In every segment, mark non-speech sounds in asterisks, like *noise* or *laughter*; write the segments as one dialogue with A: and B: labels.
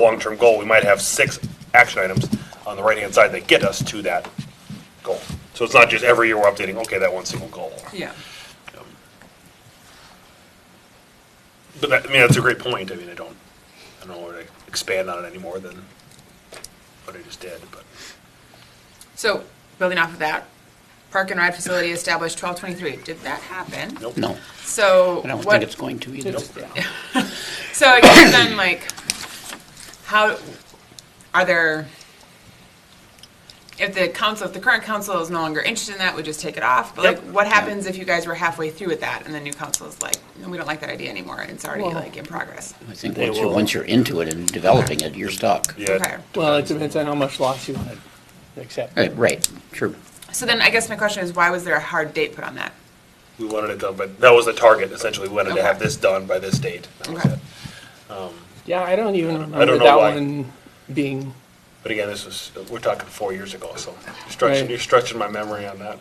A: long-term goal, we might have six action items on the right-hand side that get us to that goal. So it's not just every year we're updating, okay, that one single goal.
B: Yeah.
A: But that, I mean, that's a great point. I mean, I don't, I don't know where to expand on it any more than what I just did, but.
B: So, building off of that, park and ride facility established twelve twenty-three. Did that happen?
A: Nope.
C: No,
B: So
C: I don't
B: what-
C: think it's going to either.
B: So I guess then, like, how, are there, if the council, if the current council is no longer interested in that, we just take it off? But like,
A: Yep.
B: what happens if you guys were halfway through with that and the new council is like, no, we don't like that idea anymore, and it's already
D: Well-
B: like in progress?
C: I think
A: They
C: once you're,
A: will.
C: once you're into it and developing it, you're stuck.
A: Yeah.
B: Okay.
D: Well, it depends on how much loss you want to accept.
C: Right, Right, true.
B: So then I guess my question is, why was there a hard date put on that?
A: We wanted it done, but that was the target essentially. We wanted to have
B: Okay.
A: this done by this date. That was
B: Okay.
A: it.
D: Yeah, I don't even
A: I don't
D: remember
A: know
D: that
A: why.
D: one being,
A: But again, this was, we're talking four years ago, so you're stretching,
D: Right.
A: you're stretching my memory on that.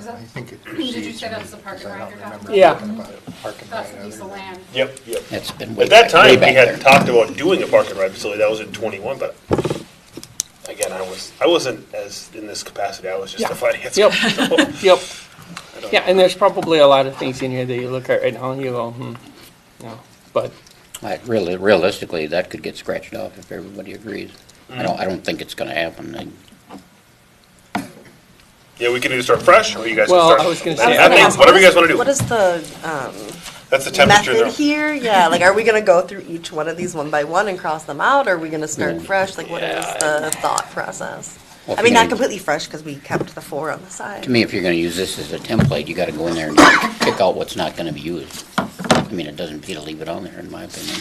E: I think it
F: you
E: precedes.
F: say
E: me,
F: that's the park and
E: because I
F: ride
E: don't
F: you're talking
E: remember
D: about?
E: talking about a Park and
F: That's
E: ride
F: a piece
E: other than-
F: of land.
A: Yep, yep.
C: That's been way
A: At that
C: back,
A: time,
C: way
A: we
C: back
A: had
C: there.
A: talked about doing a park and ride facility. That was in twenty-one, but again, I was, I wasn't as in this capacity. I was just
D: Yeah.
A: a finance.
D: Yep.
A: guy, so I
D: yep.
A: don't-
D: Yeah, and there's probably a lot of things in here that you look at right now and you go, hmm, no. But,
C: Like, really, realistically, that could get scratched off if everybody agrees. I don't, I don't think it's gonna happen. I-
A: Yeah, we can either start fresh, or you guys can
D: Well,
A: start.
D: I was gonna
A: That-
D: say-
A: That means, whatever you guys wanna
G: What
A: do.
G: is the um,
A: That's the temperature.
G: method
A: there.
G: here? Yeah, like, are we gonna go through each one of these one by one and cross them out? Or are we gonna start
C: Mm.
G: fresh? Like, what is the thought process?
C: Well,
G: I mean,
C: you know,
G: not completely fresh, because we kept the four on the side.
C: To me, if you're gonna use this as a template, you gotta go in there and pick out what's not gonna be used. I mean, it doesn't pay to leave it on there, in my opinion,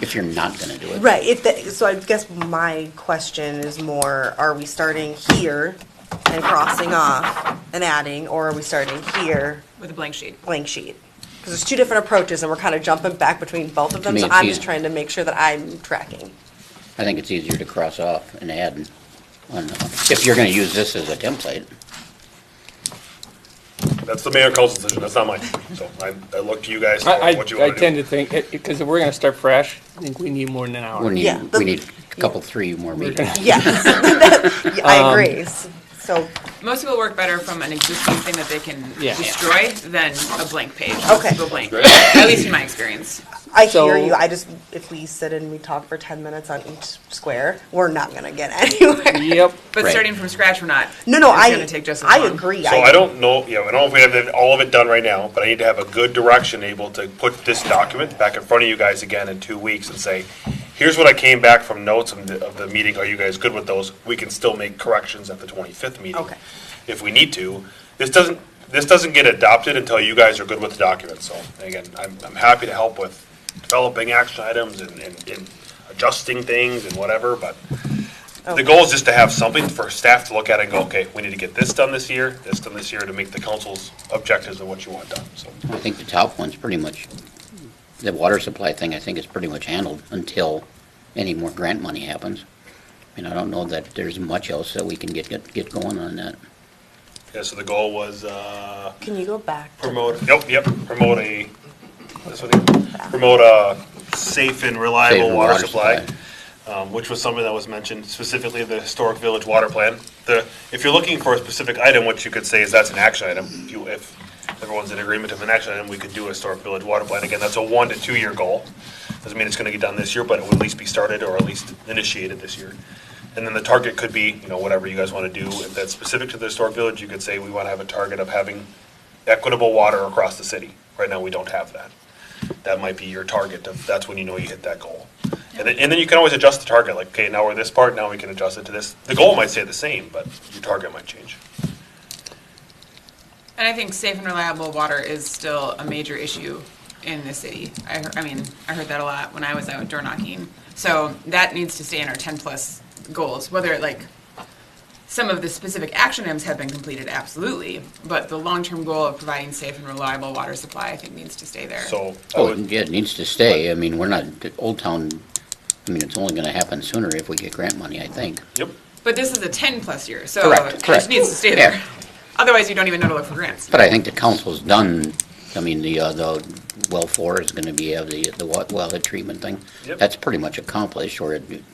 C: if you're not gonna do it.
G: Right, if, the- so I guess my question is more, are we starting here and crossing off and adding? Or are we starting here,
B: With a blank sheet?
G: blank sheet? Because there's two different approaches, and we're kind of jumping back between both of them.
C: me,
G: So
C: it's
G: I'm just
C: easy.
G: trying to make sure that I'm tracking.
C: I think it's easier to cross off and add and, on- if you're gonna use this as a template.
A: That's the mayor and council decision, that's not mine. So I, I look to you guys for
D: I, I
A: what you
D: I
A: wanna
D: tend to
A: do.
D: think, because if we're gonna start fresh, I think we need more than an
C: We
D: hour.
G: Yeah,
C: need,
G: the-
C: we need a couple, three more meetings.
G: Yes, Yeah, I agree. S- So,
B: Most people work better from an existing thing that they can
D: Yeah.
B: destroy than a blank page.
G: Okay.
B: People blank, at least in my experience.
G: I hear
D: So-
G: you, I just, if we sit and we talk for ten minutes on each square, we're not gonna get *laughs* anywhere.
D: Yep,
B: But
C: Right.
B: starting from scratch, we're not.
G: No, no,
B: It's
G: I,
B: gonna take just as
G: I
B: long.
G: agree.
A: So I don't know, yeah, I don't know if we have all of it done right now, but I need to have a good direction able to put this document back in front of you guys again in two weeks and say, here's what I came back from notes of the, of the meeting, are you guys good with those? We can still make corrections at the twenty-fifth meeting.
G: Okay.
A: If we need to. This doesn't, this doesn't get adopted until you guys are good with the document, so again, I'm, I'm happy to help with developing action items and, and, and adjusting things and whatever, but
G: Oh.
A: the goal is just to have something for staff to look at and go, okay, we need to get this done this year, this done this year, to make the council's objectives of what you want done, so.
C: I think the top one's pretty much, the water supply thing, I think is pretty much handled until any more grant money happens. I mean, I don't know that there's much else that we can get, get, get going on that.
A: Yeah, so the goal was, uh,
G: Oh, Can you go back? to-
A: promote, yep, yep, promote a, this one, here. promote a safe and
C: Safe
A: reliable
C: and
A: water
C: water
A: supply, um, which was something that was mentioned specifically in the historic village water plan. The, if you're looking for a specific item, what you could say is that's an action item. If you, if everyone's in agreement of an action item, we could do a historic village water plan. Again, that's a one to two year goal. Doesn't mean it's gonna get done this year, but it would at least be started or at least initiated this year. And then the target could be, you know, whatever you guys want to do. If that's specific to the historic village, you could say we want to have a target of having equitable water across the city. Right now, we don't have that. That might be your target of, that's when you know you hit that goal. And then, and then you can always adjust the target, like, okay, now we're this part, now we can adjust it to this. The goal might stay the same, but your target might change.
B: And I think safe and reliable water is still a major issue in the city. I, hear- I mean, I heard that a lot when I was out door knocking. So that needs to stay in our ten plus goals, whether like, some of the specific action items have been completed, absolutely, but the long-term goal of providing safe and reliable water supply, I think, needs to stay there.
A: So I
C: Oh,
A: would,
C: yeah, it needs to stay. I mean, we're not, Old Town, I mean, it's only gonna happen sooner if we get grant money, I think.
A: yep,
B: But this is a ten-plus year, so
C: Correct,
B: it
C: correct.
B: just needs to stay
C: Yeah.
B: there. Otherwise, you don't even know to look for grants.
C: But I think the council's done I mean, the, uh, the uh, well four is gonna be, have the, the wa- wellhead treatment thing.
A: Yep.
C: That's pretty much accomplished, or it,